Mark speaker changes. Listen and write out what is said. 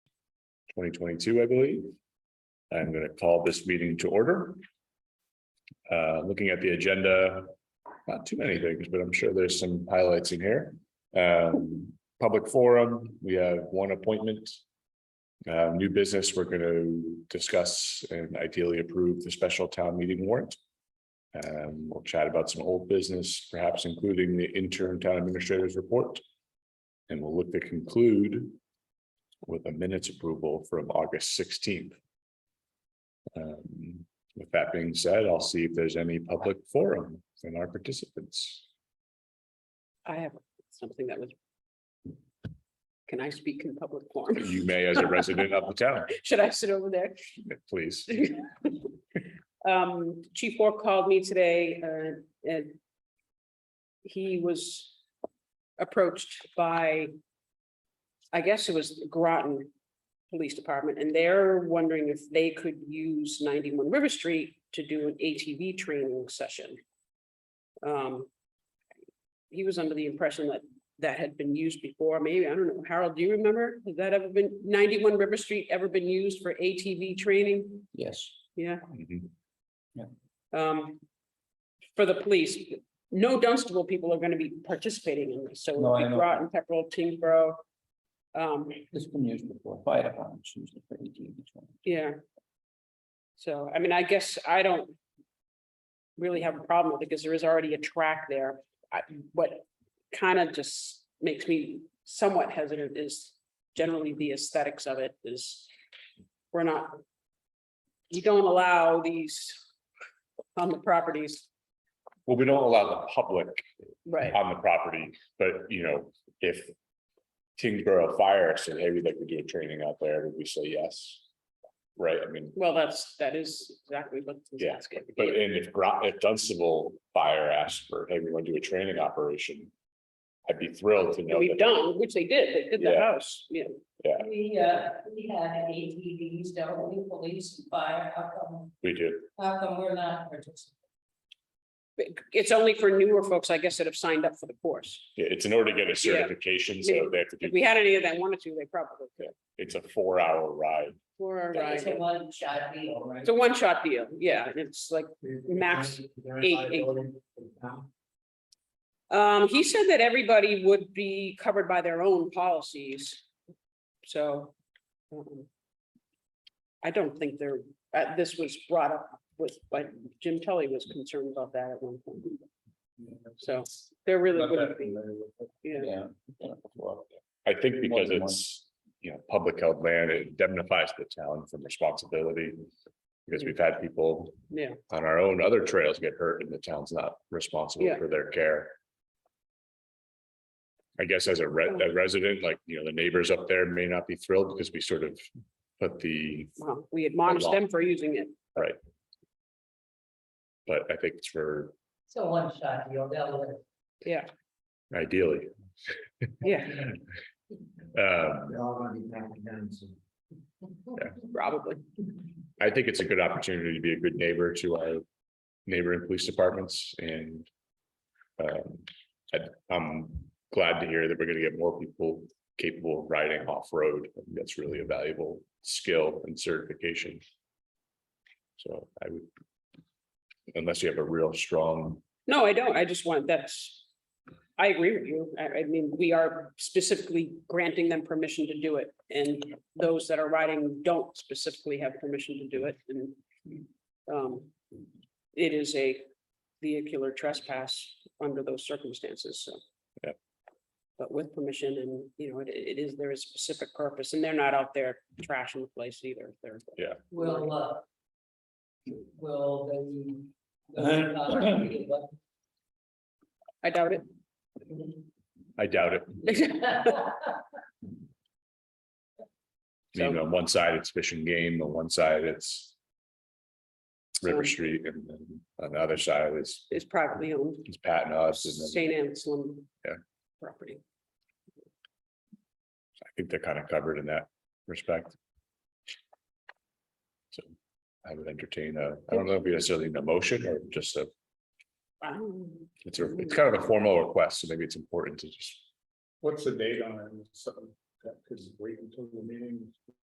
Speaker 1: twenty twenty-two, I believe. I'm going to call this meeting to order. Uh, looking at the agenda, not too many things, but I'm sure there's some highlights in here. Um, public forum, we have one appointment. Uh, new business, we're going to discuss and ideally approve the special town meeting warrant. Um, we'll chat about some old business, perhaps including the interim town administrator's report. And we'll look to conclude with a minutes approval from August sixteenth. Um, with that being said, I'll see if there's any public forum from our participants.
Speaker 2: I have something that was. Can I speak in public forum?
Speaker 1: You may, as a resident of the town,
Speaker 2: Should I sit over there?
Speaker 1: please.
Speaker 2: Um, Chief Orr called me today, uh, and. He was approached by. I guess it was Groton Police Department, and they're wondering if they could use ninety-one River Street to do an ATV training session. Um. He was under the impression that that had been used before, maybe, I don't know, Harold, do you remember? Has that ever been, ninety-one River Street ever been used for ATV training?
Speaker 3: Yes.
Speaker 2: Yeah,
Speaker 1: Mhm.
Speaker 2: um. For the police, no Dunstable people are gonna be participating in this, so
Speaker 3: No, I
Speaker 2: it'll be
Speaker 3: know.
Speaker 2: Groton, Pepperell, Tingsboro. Um,
Speaker 3: It's been used before, fire departments used it for eighteen to twenty.
Speaker 2: yeah. So, I mean, I guess I don't. Really have a problem with it, because there is already a track there, I, what kind of just makes me somewhat hesitant is. Generally, the aesthetics of it is, we're not. You don't allow these on the properties,
Speaker 1: Well, we don't allow the public
Speaker 2: right?
Speaker 1: on the property, but you know, if. Kingsborough Fire said, hey, we'd like to do a training out there, would we say yes? Right, I mean,
Speaker 2: Well, that's, that is exactly what. he's
Speaker 1: Yeah,
Speaker 2: asking.
Speaker 1: but and if Gro- if Dunstable Fire asked for, hey, we want to do a training operation. I'd be thrilled to
Speaker 2: And
Speaker 1: know.
Speaker 2: We've
Speaker 1: that-
Speaker 2: done, which they did, they did the
Speaker 1: Yeah.
Speaker 2: house, yeah,
Speaker 4: We, uh, we had ATVs, don't we, police and fire, how come,
Speaker 1: We do,
Speaker 4: how come we're not participating?
Speaker 2: But it's only for newer folks, I guess, that have signed up for the course.
Speaker 1: Yeah, it's in order to get a
Speaker 2: Yeah.
Speaker 1: certification, so they have to
Speaker 2: If
Speaker 1: do,
Speaker 2: we had any of that wanted to, they probably could.
Speaker 1: it's a four hour ride.
Speaker 2: For a
Speaker 4: It's a
Speaker 2: ride.
Speaker 4: one shot deal, right?
Speaker 2: It's a one-shot deal, yeah, and it's like, Max eight- eight. um, he said that everybody would be covered by their own policies. So. um, I don't think there, uh, this was brought up with, like, Jim Tully was concerned about that at one point, so there really wouldn't be, yeah.
Speaker 3: Yeah. I've done it before.
Speaker 1: I think
Speaker 3: More
Speaker 1: because
Speaker 3: than one.
Speaker 1: it's, you know, public held land, it indemnifies the town from responsibility. Because we've had people.
Speaker 2: Yeah.
Speaker 1: On our own, other trails get hurt and the town's not responsible
Speaker 2: Yeah.
Speaker 1: for their care. I guess as a re-
Speaker 2: Oh.
Speaker 1: a resident, like, you know, the neighbors up there may not be thrilled because we sort of put the,
Speaker 2: Well, we admonish
Speaker 1: law.
Speaker 2: them for using it.
Speaker 1: but I think it's for
Speaker 4: It's a one shot deal, they'll live.
Speaker 2: Yeah,
Speaker 1: ideally.
Speaker 2: yeah,
Speaker 1: Um,
Speaker 3: They're all gonna be packing down soon.
Speaker 2: probably.
Speaker 1: I think it's a good opportunity to be a good neighbor to our neighboring police departments and. Um, I, am glad to hear that we're gonna get more people capable of riding off-road. I think That's really a valuable skill and certification. So I would. Unless you have a real strong,
Speaker 2: No, I don't. I just want, that's, I agree with you. I, I mean, we are specifically granting them permission to do it. And those that are riding don't specifically have permission to do it and um, it is a vehicular trespass under those circumstances, so.
Speaker 1: Yep.
Speaker 2: But with permission and, you know, it, it is, there is specific purpose and they're not out there trashing the place either. They're
Speaker 4: Will, uh. Will they? will they not be, but-
Speaker 2: I doubt it.
Speaker 1: I doubt it.
Speaker 4: uh,
Speaker 1: You know, on one side, it's fish and game, on one side, it's. River
Speaker 2: So-
Speaker 1: Street and then on the other side is,
Speaker 2: It's privately owned,
Speaker 1: is Patton Us and then.
Speaker 2: St. Anselm.
Speaker 1: Yeah.
Speaker 2: Property.
Speaker 1: I think they're kind of covered in that respect. So I would entertain a, I don't know if you necessarily need a motion or just a,
Speaker 2: Um,
Speaker 1: it's a, it's kind of a formal request, so maybe it's important to just.
Speaker 5: What's the date on it? Because wait until the meeting,